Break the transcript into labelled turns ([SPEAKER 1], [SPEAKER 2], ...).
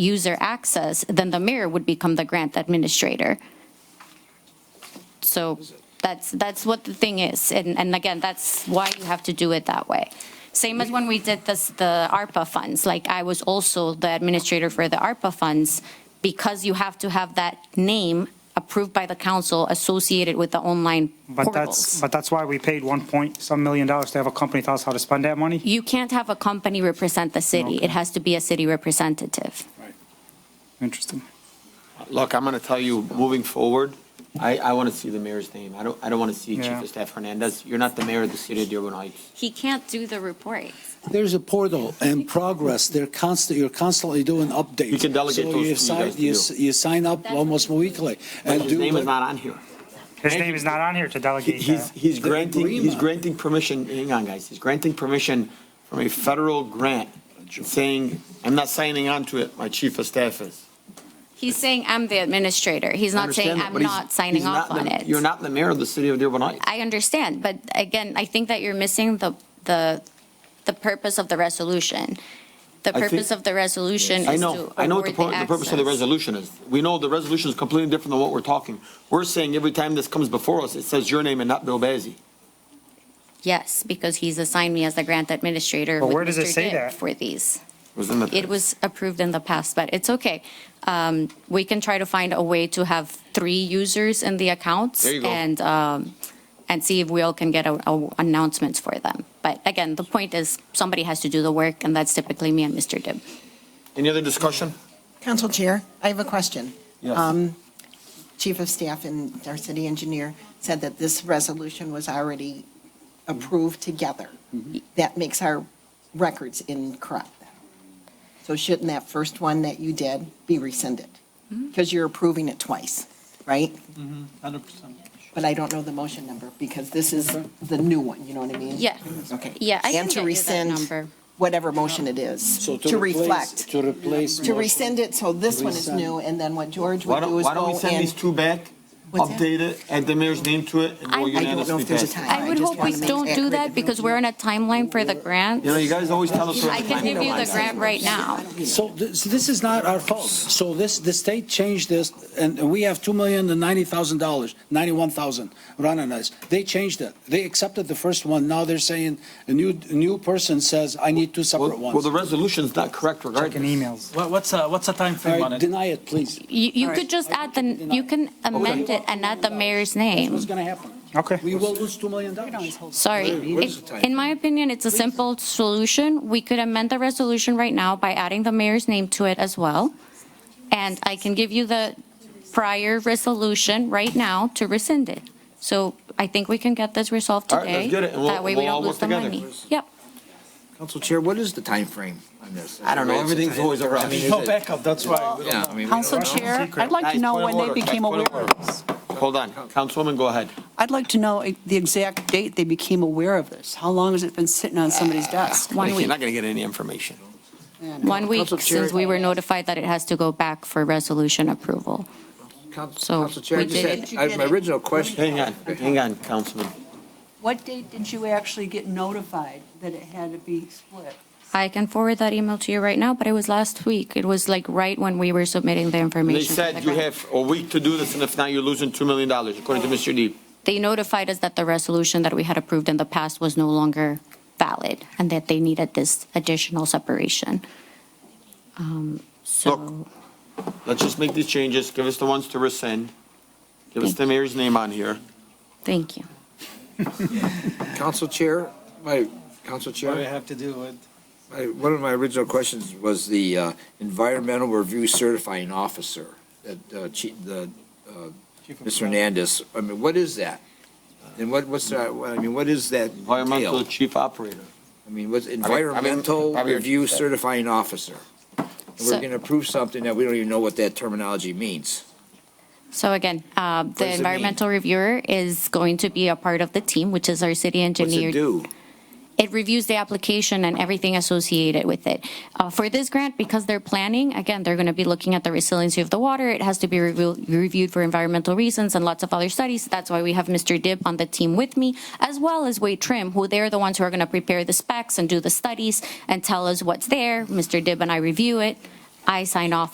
[SPEAKER 1] user access, then the mayor would become the grant administrator. So that's, that's what the thing is. And, and again, that's why you have to do it that way. Same as when we did this, the ARPA funds, like I was also the administrator for the ARPA funds because you have to have that name approved by the council associated with the online
[SPEAKER 2] But that's,
[SPEAKER 1] portals.
[SPEAKER 2] but that's why we paid one point some million dollars to have a company tell us how to spend that money?
[SPEAKER 1] You can't have a company represent the city. It has to be a city representative.
[SPEAKER 2] Interesting.
[SPEAKER 3] Look, I'm going to tell you, moving forward, I, I want to see the mayor's name. I don't, I don't want to see Chief
[SPEAKER 2] Yeah.
[SPEAKER 3] of Staff Hernandez. You're not the mayor of the city of Dearborn Heights.
[SPEAKER 1] He can't do the report.
[SPEAKER 4] There's a portal and progress. They're constant, you're constantly doing updates.
[SPEAKER 3] You can delegate
[SPEAKER 4] So
[SPEAKER 3] those to you
[SPEAKER 4] sign-
[SPEAKER 3] guys to
[SPEAKER 4] you
[SPEAKER 3] do.
[SPEAKER 4] s- You sign up almost weekly. and
[SPEAKER 3] His
[SPEAKER 4] do
[SPEAKER 3] name is
[SPEAKER 4] the-
[SPEAKER 3] not on here.
[SPEAKER 2] His name is not on here to delegate
[SPEAKER 3] He's,
[SPEAKER 2] that.
[SPEAKER 3] he's granting, he's
[SPEAKER 4] Grima.
[SPEAKER 3] granting permission, hang on, guys, he's granting permission from a federal grant saying, I'm not signing on to it, my chief of staff is.
[SPEAKER 1] He's saying I'm the administrator. He's not saying
[SPEAKER 3] Understand that,
[SPEAKER 1] I'm
[SPEAKER 3] but he's-
[SPEAKER 1] not signing
[SPEAKER 3] he's
[SPEAKER 1] off
[SPEAKER 3] not
[SPEAKER 1] on
[SPEAKER 3] the-
[SPEAKER 1] it.
[SPEAKER 3] You're not the mayor of the city of Dearborn Heights.
[SPEAKER 1] I understand, but again, I think that you're missing the, the, the purpose of the resolution. The
[SPEAKER 3] I think-
[SPEAKER 1] purpose of the resolution
[SPEAKER 3] I
[SPEAKER 1] is to
[SPEAKER 3] know, I know what the,
[SPEAKER 1] award
[SPEAKER 3] pur- the purpose of the
[SPEAKER 1] access.
[SPEAKER 3] resolution is. We know the resolution is completely different than what we're talking. We're saying every time this comes before us, it says your name and not Bill Bazey.
[SPEAKER 1] Yes, because he's assigned me as the grant administrator
[SPEAKER 2] But
[SPEAKER 1] with
[SPEAKER 2] where does it
[SPEAKER 1] Mr.
[SPEAKER 2] say
[SPEAKER 1] Gibb
[SPEAKER 2] that?
[SPEAKER 1] for these.
[SPEAKER 3] Was in the-
[SPEAKER 1] It was approved in the past, but it's okay. Um, we can try to find a way to have three users in the accounts.
[SPEAKER 3] There you go.
[SPEAKER 1] And, um, and see if we all can get a, a announcements for them. But again, the point is, somebody has to do the work, and that's typically me and Mr. Gibb.
[SPEAKER 3] Any other discussion?
[SPEAKER 5] Council Chair, I have a question.
[SPEAKER 3] Yes.
[SPEAKER 5] Um, Chief of Staff and our city engineer said that this resolution was already approved together.
[SPEAKER 4] Mm-hmm.
[SPEAKER 5] That makes our records incorrect. So shouldn't that first one that you did be rescinded? Because you're approving it twice, right?
[SPEAKER 4] Mm-hmm.
[SPEAKER 5] But I don't know the motion number because this is the new one, you know what I mean?
[SPEAKER 1] Yeah.
[SPEAKER 5] Okay.
[SPEAKER 1] Yeah, I can
[SPEAKER 5] And
[SPEAKER 1] get you
[SPEAKER 5] to
[SPEAKER 1] that
[SPEAKER 5] rescind
[SPEAKER 1] number.
[SPEAKER 5] Whatever motion it is,
[SPEAKER 4] So
[SPEAKER 5] to
[SPEAKER 4] replace-
[SPEAKER 5] reflect.
[SPEAKER 4] To replace.
[SPEAKER 5] To
[SPEAKER 4] motion.
[SPEAKER 5] rescind it, so this one is new, and then what George
[SPEAKER 3] Why
[SPEAKER 5] would
[SPEAKER 3] don't,
[SPEAKER 5] do is
[SPEAKER 3] why don't we
[SPEAKER 5] go
[SPEAKER 3] send
[SPEAKER 5] in.
[SPEAKER 3] these two back,
[SPEAKER 5] What's that?
[SPEAKER 3] update it, add the mayor's name to it, and
[SPEAKER 1] I- I don't
[SPEAKER 3] we'll
[SPEAKER 1] know
[SPEAKER 5] I don't know
[SPEAKER 3] unanimously
[SPEAKER 5] if there's a
[SPEAKER 3] pass. it.
[SPEAKER 5] time.
[SPEAKER 1] I would
[SPEAKER 5] just
[SPEAKER 1] hope we
[SPEAKER 5] wanna make
[SPEAKER 1] don't
[SPEAKER 5] that
[SPEAKER 1] do
[SPEAKER 5] clear.
[SPEAKER 1] that because we're on a timeline for the grant.
[SPEAKER 3] You know, you guys always tell us.
[SPEAKER 1] I can give you the grant right now.
[SPEAKER 4] So this, this is not our fault. So this, the state changed this, and we have two million and ninety thousand dollars, ninety-one thousand, running us. They changed it. They accepted the first one. Now they're saying, a new, a new person says, I need two separate
[SPEAKER 3] Well, well, the
[SPEAKER 4] ones.
[SPEAKER 3] resolution's not correct
[SPEAKER 2] Checking
[SPEAKER 3] regardless.
[SPEAKER 2] emails.
[SPEAKER 6] What- What's, uh, what's the
[SPEAKER 4] All
[SPEAKER 6] timeframe on
[SPEAKER 4] right,
[SPEAKER 6] it?
[SPEAKER 4] deny it, please.
[SPEAKER 1] You, you could just add the, you can amend it and add the mayor's name.
[SPEAKER 4] What's gonna happen?
[SPEAKER 2] Okay.
[SPEAKER 4] We will lose two million dollars.
[SPEAKER 1] Sorry. It- In my opinion, it's a simple solution. We could amend the resolution right now by adding the mayor's name to it as well. And I can give you the prior resolution right now to rescind it. So I think we can get this resolved
[SPEAKER 3] All right, let's
[SPEAKER 1] today.
[SPEAKER 3] get it, and we'll-
[SPEAKER 1] That way
[SPEAKER 3] we'll
[SPEAKER 1] we
[SPEAKER 3] all
[SPEAKER 1] don't lose
[SPEAKER 3] work
[SPEAKER 1] the
[SPEAKER 3] together.
[SPEAKER 1] money. Yep.
[SPEAKER 7] Council Chair, what is the time frame on this?
[SPEAKER 3] I don't know, everything's always a rush.
[SPEAKER 6] No Oh, backup, that's why.
[SPEAKER 7] Yeah, I mean, we
[SPEAKER 8] Council
[SPEAKER 7] don't-
[SPEAKER 8] Chair, I'd like to
[SPEAKER 3] Guys,
[SPEAKER 8] know
[SPEAKER 3] point of
[SPEAKER 8] when they
[SPEAKER 3] order, guys,
[SPEAKER 8] became
[SPEAKER 3] point
[SPEAKER 8] aware
[SPEAKER 3] of
[SPEAKER 8] of
[SPEAKER 3] order.
[SPEAKER 8] this.
[SPEAKER 3] Hold on, Councilwoman, go ahead.
[SPEAKER 8] I'd like to know the exact date they became aware of this. How long has it been sitting on somebody's desk?
[SPEAKER 1] One
[SPEAKER 3] You're
[SPEAKER 1] week.
[SPEAKER 3] not going to get any information.
[SPEAKER 1] One week
[SPEAKER 7] Council Chair-
[SPEAKER 1] since we were notified that it has to go back for resolution approval.
[SPEAKER 7] Council
[SPEAKER 1] So,
[SPEAKER 7] Council Chair, I
[SPEAKER 1] we
[SPEAKER 7] just
[SPEAKER 1] did-
[SPEAKER 7] had, I- my original question.
[SPEAKER 3] Hang on, hang on, Councilman.
[SPEAKER 8] What date did you actually get notified that it had to be split?
[SPEAKER 1] I can forward that email to you right now, but it was last week. It was like right when we were submitting the
[SPEAKER 3] They
[SPEAKER 1] information. to the
[SPEAKER 3] said you
[SPEAKER 1] grant.
[SPEAKER 3] have a week to do this, and if not, you're losing $2 million, according to Mr. Deeb.
[SPEAKER 1] They notified us that the resolution that we had approved in the past was no longer valid and that they needed this additional separation. Um, So,
[SPEAKER 3] Look. Let's just make these changes, give us the ones to rescind, give us the mayor's name on here.
[SPEAKER 1] thank you.
[SPEAKER 7] Council Chair, my, Council
[SPEAKER 6] What do I
[SPEAKER 7] Chair,
[SPEAKER 6] have to do with?
[SPEAKER 7] my- one of my original questions was the uh, environmental review certifying officer, that, uh, Chief, the, uh, Mr. Hernandez, I mean, what is that? And what, what's that, I mean, what is that
[SPEAKER 3] Environmental
[SPEAKER 7] entail?
[SPEAKER 3] chief operator.
[SPEAKER 7] I mean, what's environmental
[SPEAKER 3] probably-
[SPEAKER 7] review certifying officer? And
[SPEAKER 1] So-
[SPEAKER 7] We're gonna approve something that we don't even know what that terminology means.
[SPEAKER 1] So again, uh,
[SPEAKER 7] does it
[SPEAKER 1] the
[SPEAKER 7] mean?
[SPEAKER 1] environmental reviewer is going to be a part of the team, which is our city
[SPEAKER 7] What's
[SPEAKER 1] engineer.
[SPEAKER 7] it do?
[SPEAKER 1] it reviews the application and everything associated with it. Uh, for this grant, because they're planning, again, they're going to be looking at the resiliency of the water. It has to be reviewed, reviewed for environmental reasons and lots of other studies. That's why we have Mr. Dib on the team with me, as well as Wade Trim, who they're the ones who are going to prepare the specs and do the studies and tell us what's there. Mr. Dib and I review it. I sign off